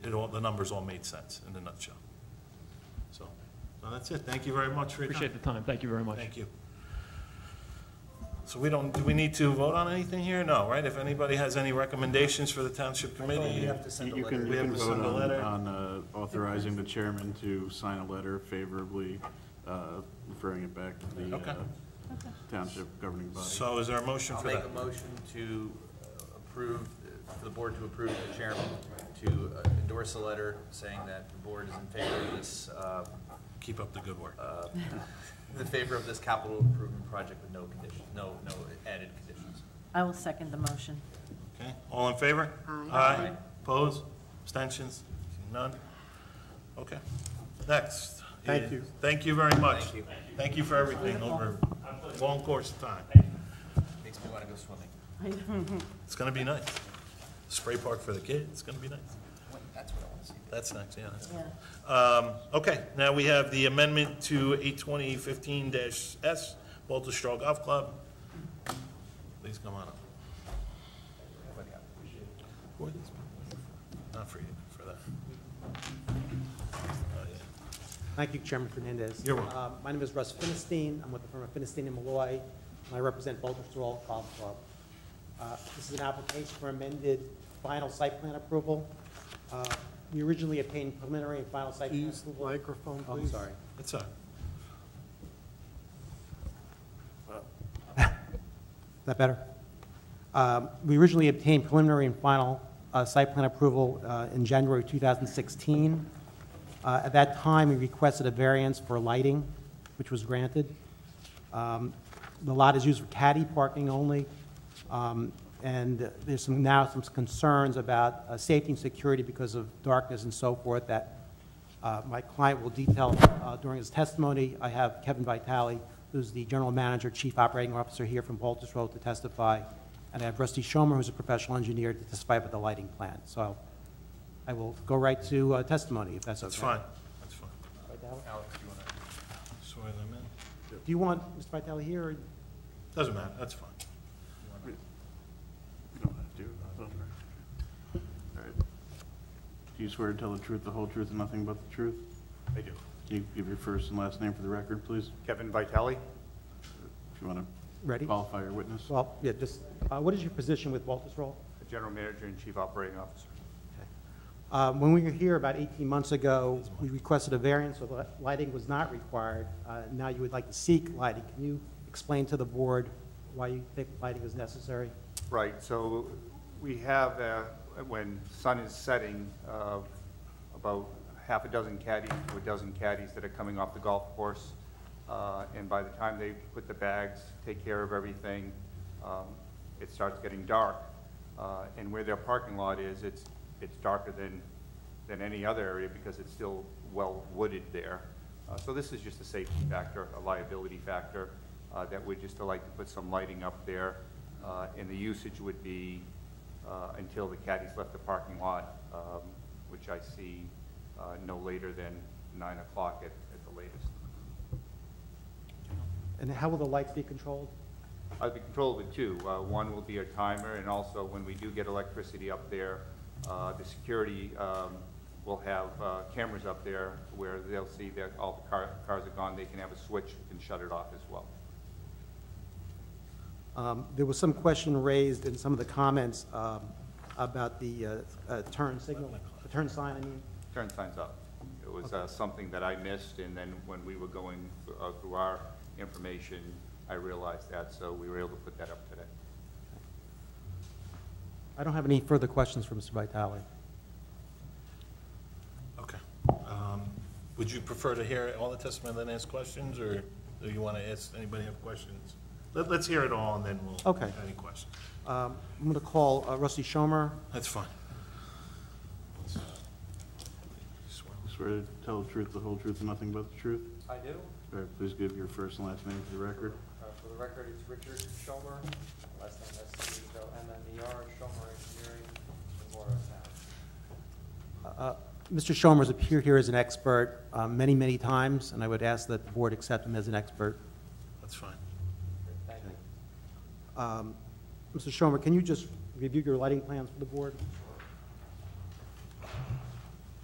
it all, the numbers all made sense in a nutshell. So, no, that's it. Thank you very much for your time. Appreciate the time. Thank you very much. Thank you. So we don't, do we need to vote on anything here? No, right? If anybody has any recommendations for the township committee? You have to send a You letter. can, We you have can to send vote a on, letter. on uh, authorizing the chairman to sign a letter favorably, uh, referring it back to the Okay. uh, township governing body. So is there a motion I'll for make that? a motion to uh, approve, for the board to approve the chairman to uh, endorse a letter saying that the board is in favor of this, uh, Keep up the good work. uh, in favor of this capital improvement project with no conditions, no, no added conditions. I will second the motion. Okay, all in favor? Aye. Aye, Aye. pose, abstentions, none? Okay, next. Thank you. Thank you very much. Thank you. Thank you for everything over a long course of time. Makes me want to go swimming. It's gonna be nice. Spray park for the kids, it's gonna be nice. That's what I want to see. That's next, yeah, that's. Yeah. Um, okay, now we have the amendment to eight twenty fifteen dash S, Walter Straw Golf Club. Please come on up. Not for you, for that. Oh, yeah. Thank you, Chairman Fernandez. You're welcome. Uh, My name is Russ Finestein. I'm with the firm of Finestein and Malloy, and I represent Boulder Stroll Golf Club. Uh, This is an application for amended final site plan approval. Uh, We originally obtained preliminary and final site plan Use the approval. microphone, Oh, please. I'm sorry. That's all right. Is that better? Um, We originally obtained preliminary and final uh, site plan approval uh, in January 2016. Uh, At that time, we requested a variance for lighting, which was granted. Um, The lot is used for caddy parking only, um, and there's some, now some concerns about uh, safety and security because of darkness and so forth that uh, My client will detail uh, during his testimony. I have Kevin Vitale, who's the General Manager, Chief Operating Officer here from Walters Road to testify, and I have Rusty Schomer, who's a professional engineer, to testify about the lighting plan. So I will go right to uh, testimony, if that's okay. That's fine, that's fine. Alex, do you want to? Swear them in. Do you want Mr. Vitale here, or Doesn't matter, that's fine. You don't have to. All right. Do you swear to tell the truth, the whole truth, and nothing but the truth? I do. Can you give your first and last name for the record, please? Kevin Vitale, If you want to ready? qualify your witness. Well, yeah, just, uh, what is your position with Walters Road? the General Manager and Chief Operating Officer. Uh, When we were here about 18 months ago, we requested a variance, so the lighting was not required. Uh, Now you would like to seek lighting. Can you explain to the board why you think lighting is necessary? Right, so we have, uh, when sun is setting, uh, about half a dozen caddies to a dozen caddies that are coming off the golf course. Uh, And by the time they put the bags, take care of everything, um, it starts getting dark. Uh, And where their parking lot is, it's, it's darker than, than any other area because it's still well wooded there. Uh, So this is just a safety factor, a liability factor, uh, that we'd just like to put some lighting up there. Uh, And the usage would be uh, until the caddies left the parking lot, um, which I see uh, no later than nine o'clock at at the latest. And how will the lights be controlled? I'll be controlled with two. Uh, One will be a timer, and also when we do get electricity up there, uh, the security um, will have uh, cameras up there where they'll see that all the car- cars are gone. They can have a switch and shut it off as well. Um, There was some question raised in some of the comments um, about the uh, uh, turn signal, the turn sign, I mean. Turn signs up. It was uh, something that I missed, and then when we were going uh, through our information, I realized that, so we were able to put that up today. I don't have any further questions for Mr. Vitale. Okay. Um, Would you prefer to hear all the testimony and then ask questions, or do you want to ask, anybody have questions? Let, let's hear it all, and then we'll. Okay. Any questions? Um, I'm going to call uh, Rusty Schomer. That's fine. Swear. Swear to tell the truth, the whole truth, and nothing but the truth? I do. Uh, All right, please give your first and last name for the record. For the record, it's Richard Schomer, last name S C H O M M E R, Schomer Engineering, in Uh, Mr. Schomer's appeared here as an expert uh, many, many times, and I would ask that the board accept him as an expert. That's fine. Thank you. Um, Mr. Schomer, can you just review your lighting plans for the board?